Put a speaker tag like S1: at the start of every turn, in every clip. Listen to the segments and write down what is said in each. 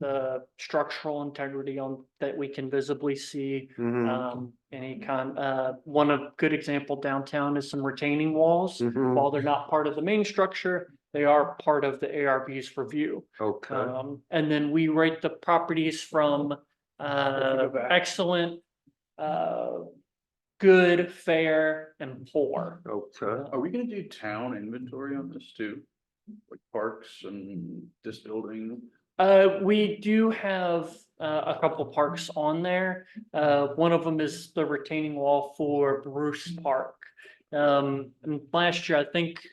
S1: the structural integrity on, that we can visibly see.
S2: Mhm.
S1: Um, any kind, uh, one of, good example downtown is some retaining walls.
S2: Mhm.
S1: While they're not part of the main structure, they are part of the ARB's review.
S2: Okay.
S1: Um, and then we rate the properties from, uh,
S3: back.
S1: excellent, uh, good, fair, and poor. uh,
S2: Okay.
S3: Are we gonna do town inventory on this too? Like parks and this building?
S1: Uh, we do have, uh, a couple parks on there. Uh, one of them is the retaining wall for Bruce Park. Um, and last year, I think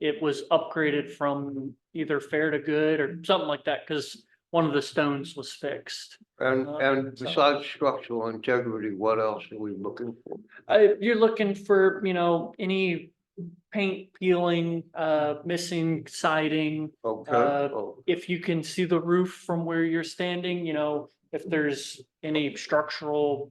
S1: it was upgraded from either fair to good or something like that, because one of the stones was fixed.
S2: And,
S1: Uh,
S2: and
S1: so-
S2: besides structural integrity, what else are we looking for?
S1: Uh, you're looking for, you know, any paint peeling, uh, missing siding, Uh,
S2: Okay. Oh,
S1: if you can see the roof from where you're standing, you know, if there's any structural.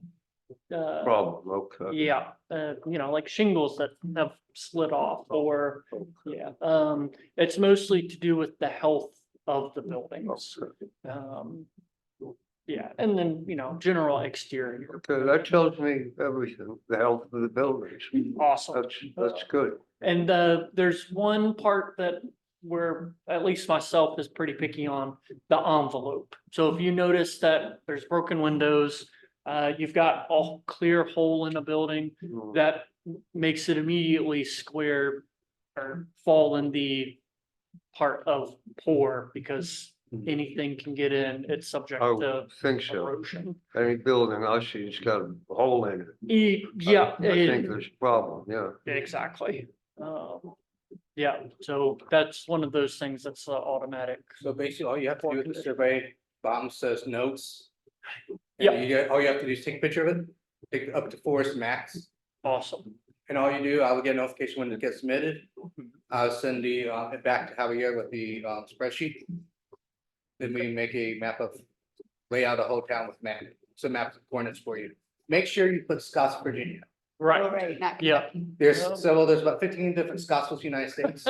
S1: Uh,
S2: Problem, okay.
S1: yeah, uh, you know, like shingles that have slid off or,
S2: Okay.
S1: yeah, um, it's mostly to do with the health of the buildings.
S2: Okay.
S1: Um, yeah, and then, you know, general exterior,
S2: Okay, that tells me everything, the health of the buildings.
S1: awesome.
S2: That's, that's good.
S1: And uh, there's one part that where at least myself is pretty picky on the envelope. So if you notice that there's broken windows, uh, you've got a clear hole in a building
S2: Mm.
S1: that makes it immediately square or fall in the part of poor because
S2: Hmm.
S1: anything can get in, it's subject
S2: I
S1: to
S2: think so.
S1: erosion.
S2: Any building I see, it's got a hole in it.
S1: E- Yeah.
S2: I think
S1: it-
S2: there's a problem, yeah.
S1: Exactly. Um, yeah, so that's one of those things that's uh, automatic.
S4: So basically, all you have to do is the survey, bottom says notes.
S1: Yeah.
S4: And you get, all you have to do is take a picture of it, take up to forest max,
S1: Awesome.
S4: and all you do, I will get a notification when it gets submitted. I'll send the, uh, it back to Javier with the, uh, spreadsheet. Then we make a map of, lay out a whole town with map, some maps of coordinates for you. Make sure you put Scotts, Virginia.
S1: Right.
S5: Not
S1: Yeah.
S4: There's
S1: Um,
S4: several, there's about fifteen different Scottsville, United States.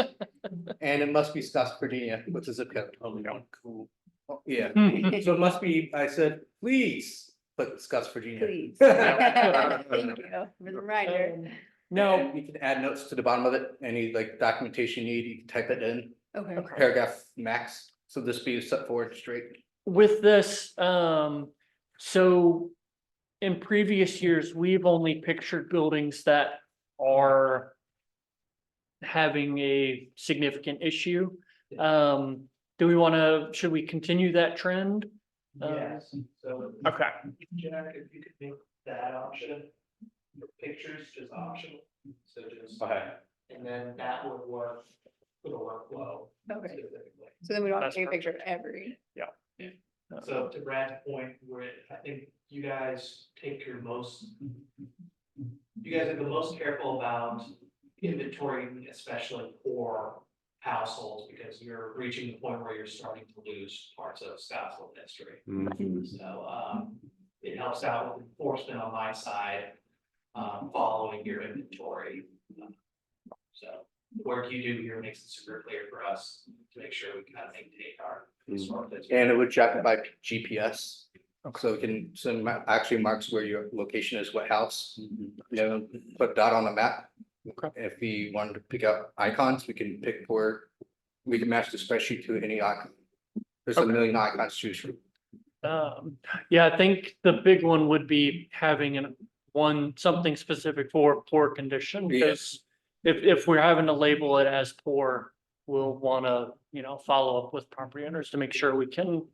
S4: And it must be Scotts, Virginia, which is a code.
S3: Only one cool.
S4: Oh, Yeah.
S1: Mhm.
S4: So it must be, I said, please, but Scotts, Virginia.
S5: Please.
S4: Yeah.
S5: Thank you for the reminder.
S1: Um, No,
S4: And You can add notes to the bottom of it, any like documentation you need, you can type it in,
S5: Okay.
S4: paragraph max, so this be set forward straight.
S1: with this, um, so in previous years, we've only pictured buildings that are having a significant issue. Um, do we want to, should we continue that trend? Um,
S6: Yes, so.
S1: Okay.
S6: Jack, if you could make that option, the pictures just optional, so just,
S3: Okay.
S6: and then that would work for the workflow.
S5: Okay.
S6: specifically.
S5: So then we don't have
S1: That's
S5: to take a picture of every.
S1: Uh,
S6: So to Brad's point, where I think you guys take your most. You guys are the most careful about inventorying, especially for households, because you're reaching the point where you're starting to lose parts of Scottsville history.
S2: Mhm.
S6: So, um, it helps out with enforcement on my side, um, following your inventory. So the work you do here makes it super clear for us to make sure we kind of maintain our. historic district.
S4: And it would track it by GPS. So it can, so it ma- actually marks where your location is, what house, you know, put that on a map.
S1: Okay.
S4: If we wanted to pick up icons, we can pick where, we can match the spreadsheet to any icon. There's a
S1: Okay.
S4: million icons to choose from.
S1: Um, yeah, I think the big one would be having an, one, something specific for poor condition,
S4: Yeah.
S1: because if, if we're having to label it as poor, we'll wanna, you know, follow up with property owners to make sure we can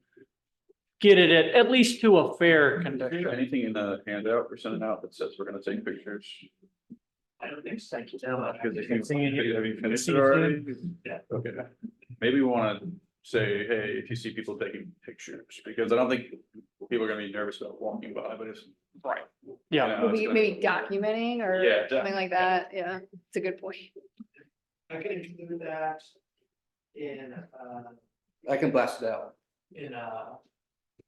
S1: get it at, at least to a fair condition.
S3: Anything in the handout we're sending out that says we're gonna take pictures?
S6: I don't think so. Thank you so much.
S3: Because if Uh, you- have you finished it already?
S6: Yeah.
S3: Okay, maybe we wanna say, hey, if you see people taking pictures, because I don't think people are gonna be nervous about walking by, but it's.
S1: Right.
S3: You
S1: Yeah.
S3: know, it's
S5: Maybe,
S3: gonna-
S5: maybe documenting or
S3: Yeah,
S5: something like that. Yeah, it's a good point.
S6: I can include that in, uh,
S4: I can blast it out.
S6: in, uh,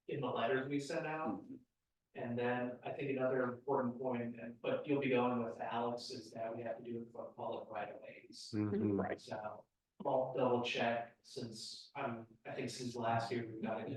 S6: in the letters we sent out. And then I think another important point, and, but you'll be going with Alex, is that we have to do it for public right of ways.
S2: Mhm.
S1: Mm-hmm.
S6: So I'll double check since, um, I think since last year we've got it